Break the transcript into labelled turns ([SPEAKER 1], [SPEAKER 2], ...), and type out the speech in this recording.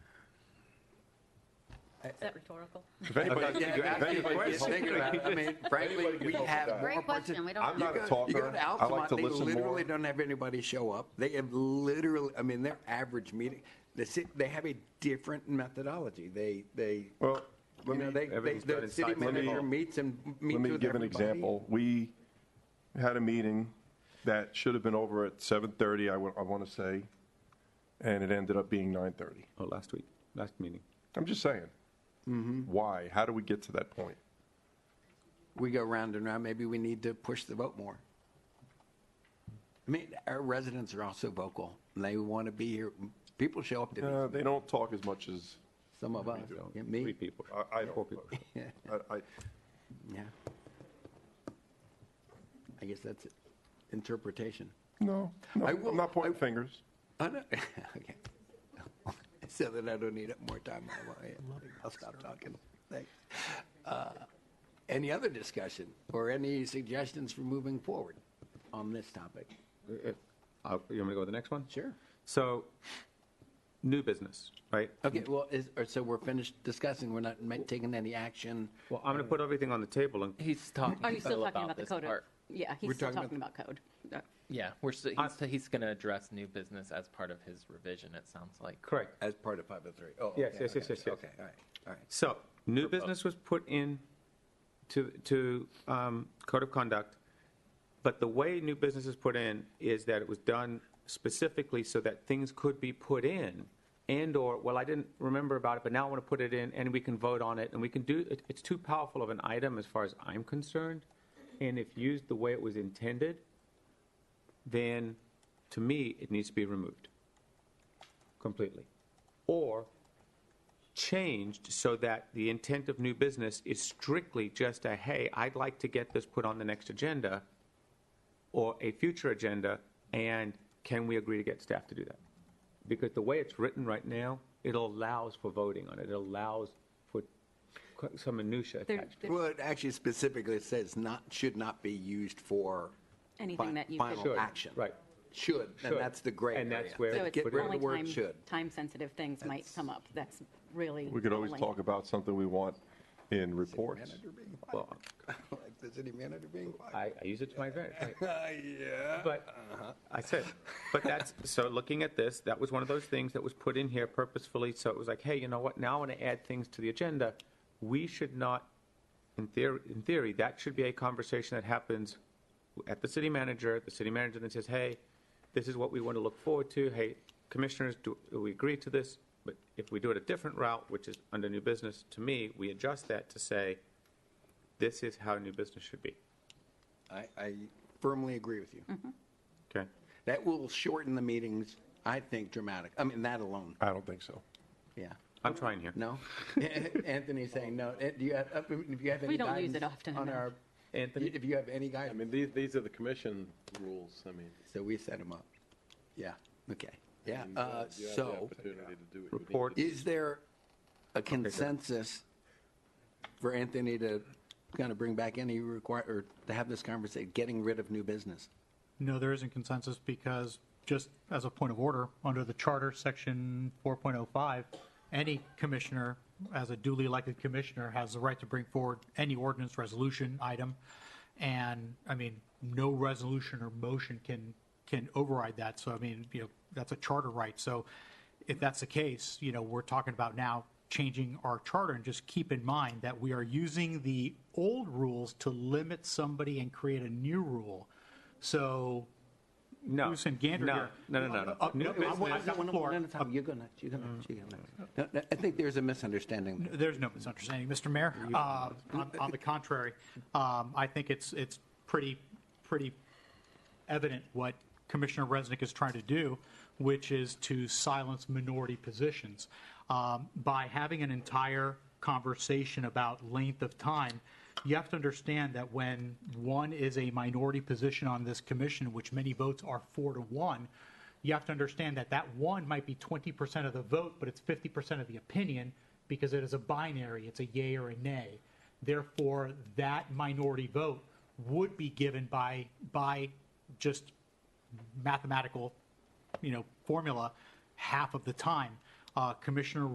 [SPEAKER 1] Is that rhetorical?
[SPEAKER 2] If anybody,
[SPEAKER 3] Yeah,
[SPEAKER 2] if
[SPEAKER 3] that's
[SPEAKER 2] anybody
[SPEAKER 3] the
[SPEAKER 2] gets-
[SPEAKER 3] question. Think about it. I mean, frankly, we have more.
[SPEAKER 1] Great question,
[SPEAKER 3] partic-
[SPEAKER 1] we don't
[SPEAKER 2] I'm
[SPEAKER 1] know.
[SPEAKER 2] not a
[SPEAKER 3] You go-
[SPEAKER 2] talker.
[SPEAKER 3] You go to
[SPEAKER 2] I like
[SPEAKER 3] Altamont,
[SPEAKER 2] to
[SPEAKER 3] they
[SPEAKER 2] listen more.
[SPEAKER 3] literally don't have anybody show up. They have literally, I mean, their average meeting, they sit, they have a different methodology. They, they,
[SPEAKER 2] Well,
[SPEAKER 3] you
[SPEAKER 2] let
[SPEAKER 3] know,
[SPEAKER 2] me-
[SPEAKER 3] they, they,
[SPEAKER 4] everything's done
[SPEAKER 3] the
[SPEAKER 4] in
[SPEAKER 3] city
[SPEAKER 4] sight. Let me-
[SPEAKER 3] manager meets and meets
[SPEAKER 2] let me
[SPEAKER 3] with
[SPEAKER 2] give an
[SPEAKER 3] everybody.
[SPEAKER 2] example. We had a meeting that should have been over at 7:30, I want to say, and it ended up being 9:30.
[SPEAKER 4] Oh, last week, last meeting.
[SPEAKER 2] I'm just saying.
[SPEAKER 3] Mm-hmm.
[SPEAKER 2] Why? How do we get to that point?
[SPEAKER 3] We go round and round, maybe we need to push the vote more. I mean, our residents are also vocal, and they want to be here. People show up to
[SPEAKER 2] Uh,
[SPEAKER 3] these,
[SPEAKER 2] they don't talk as much as
[SPEAKER 3] some of us,
[SPEAKER 4] So,
[SPEAKER 3] yeah,
[SPEAKER 4] Three
[SPEAKER 3] me, Uh,
[SPEAKER 4] people.
[SPEAKER 2] I, I
[SPEAKER 4] Four
[SPEAKER 2] don't.
[SPEAKER 4] people.
[SPEAKER 2] I, I,
[SPEAKER 3] yeah. I guess that's interpretation.
[SPEAKER 2] no, no,
[SPEAKER 3] I
[SPEAKER 2] I'm
[SPEAKER 3] will-
[SPEAKER 2] not pointing
[SPEAKER 3] I-
[SPEAKER 2] fingers.
[SPEAKER 3] I know. okay. so that I don't need up more time. I'll, I'll stop talking. Thanks. Uh, any other discussion or any suggestions for moving forward on this topic?
[SPEAKER 4] Uh, uh, I'll- You want me to go with the next one?
[SPEAKER 3] Sure.
[SPEAKER 4] So, new business, right?
[SPEAKER 3] Okay. Well, is, or so we're finished discussing. We're not ma- taking any action.
[SPEAKER 4] Well, I'm going to put everything on the table and
[SPEAKER 5] He's talking.
[SPEAKER 1] Are you Oh, still
[SPEAKER 5] though,
[SPEAKER 1] talking about the
[SPEAKER 5] this
[SPEAKER 1] code? of-
[SPEAKER 5] part.
[SPEAKER 1] Yeah, he's
[SPEAKER 3] We're
[SPEAKER 1] still talking
[SPEAKER 3] talking
[SPEAKER 1] about code. Uh,
[SPEAKER 5] Yeah, we're, s-
[SPEAKER 4] I-
[SPEAKER 5] he's, he's going to address new business as part of his revision, it sounds like.
[SPEAKER 4] Correct.
[SPEAKER 3] As part of 503. Oh,
[SPEAKER 4] Yes,
[SPEAKER 3] okay,
[SPEAKER 4] yes, yes,
[SPEAKER 3] okay,
[SPEAKER 4] yes, yes.
[SPEAKER 3] Okay, all right, all right.
[SPEAKER 4] So, new business was put in to, to um, code of conduct, but the way new business is put in is that it was done specifically so that things could be put in and/or, well, I didn't remember about it, but now I want to put it in and we can vote on it and we can do, it- it's too powerful of an item as far as I'm concerned. And if used the way it was intended, then to me, it needs to be removed completely. Or changed so that the intent of new business is strictly just a, hey, I'd like to get this put on the next agenda or a future agenda, and can we agree to get staff to do that? Because the way it's written right now, it allows for voting on it. It allows for qu- some minutia
[SPEAKER 1] there-
[SPEAKER 4] attached.
[SPEAKER 1] there-
[SPEAKER 3] Well, it actually specifically says not should not be used for
[SPEAKER 1] Anything
[SPEAKER 3] fin-
[SPEAKER 1] that you could-
[SPEAKER 3] final
[SPEAKER 4] Should,
[SPEAKER 3] action.
[SPEAKER 4] right.
[SPEAKER 3] Should, and
[SPEAKER 4] Should.
[SPEAKER 3] that's the gray
[SPEAKER 4] And that's
[SPEAKER 3] area.
[SPEAKER 4] where-
[SPEAKER 1] So
[SPEAKER 4] But
[SPEAKER 1] it's
[SPEAKER 3] Get rid of
[SPEAKER 1] only
[SPEAKER 3] the word
[SPEAKER 1] time-
[SPEAKER 3] should.
[SPEAKER 1] Time-sensitive things might come up. That's really.
[SPEAKER 2] We could always
[SPEAKER 1] only-
[SPEAKER 2] talk about something we want in reports.
[SPEAKER 3] Manager being
[SPEAKER 4] Well,
[SPEAKER 3] fired. Like the city manager being fired.
[SPEAKER 4] I, I use it to my advantage. right?
[SPEAKER 3] Uh, yeah.
[SPEAKER 4] But Uh-huh. I said, but that's, so looking at this, that was one of those things that was put in here purposefully. So it was like, hey, you know what? Now I want to add things to the agenda. We should not, in theory, in theory, that should be a conversation that happens at the city manager. The city manager then says, hey, this is what we want to look forward to. Hey, commissioners, do, do we agree to this? But if we do it a different route, which is under new business, to me, we adjust that to say, this is how new business should be.
[SPEAKER 3] I, I firmly agree with
[SPEAKER 1] Mm.
[SPEAKER 3] you.
[SPEAKER 4] Okay?
[SPEAKER 3] That will shorten the meetings, I think, dramatic. I mean, that alone,
[SPEAKER 2] I don't think so.
[SPEAKER 3] yeah.
[SPEAKER 4] I'm trying here.
[SPEAKER 3] No? Anthony's saying no. Eh, Do you have, uh, if you have any
[SPEAKER 1] We don't use it
[SPEAKER 3] guidance
[SPEAKER 1] often
[SPEAKER 3] on
[SPEAKER 1] enough.
[SPEAKER 3] our,
[SPEAKER 4] Anthony?
[SPEAKER 3] if you have any
[SPEAKER 6] I
[SPEAKER 3] guidance,
[SPEAKER 6] mean, these, these are the commission rules, I mean.
[SPEAKER 3] so we set them up. Yeah, okay, yeah.
[SPEAKER 6] you
[SPEAKER 3] Uh,
[SPEAKER 6] have- you have the
[SPEAKER 3] So
[SPEAKER 6] Opportunity to do what you need to
[SPEAKER 4] Report.
[SPEAKER 3] is there a consensus for Anthony to kind of bring back any require, or to have this conversation, getting rid of new business?
[SPEAKER 7] No, there isn't consensus because, just as a point of order, under the charter, section 4.05, any commissioner, as a duly elected commissioner, has the right to bring forward any ordinance resolution item. And, I mean, no resolution or motion can, can override that. So, I mean, you know, that's a charter right. So if that's the case, you know, we're talking about now changing our charter and just keep in mind that we are using the old rules to limit somebody and create a new rule. So
[SPEAKER 4] No.
[SPEAKER 7] Goose and gander
[SPEAKER 4] No,
[SPEAKER 7] here. Uh,
[SPEAKER 4] No, no, no, no.
[SPEAKER 7] Up-
[SPEAKER 4] New
[SPEAKER 7] up- up-
[SPEAKER 4] business,
[SPEAKER 7] I've got
[SPEAKER 3] No, no,
[SPEAKER 7] floor.
[SPEAKER 3] no, no, Tom, you go next, you go next, you go next. No, no, I think there's a misunderstanding there.
[SPEAKER 7] there's no misunderstanding, Mr. Mayor. Uh, on, on the contrary, um, I think it's, it's pretty, pretty evident what Commissioner Resnick is trying to do, which is to silence minority positions. Um, By having an entire conversation about length of time, you have to understand that when one is a minority position on this commission, which many votes are four to one, you have to understand that that one might be 20% of the vote, but it's 50% of the opinion because it is a binary, it's a yay or a nay. Therefore, that minority vote would be given by, by just mathematical, you know, formula half of the time. Uh, Commissioner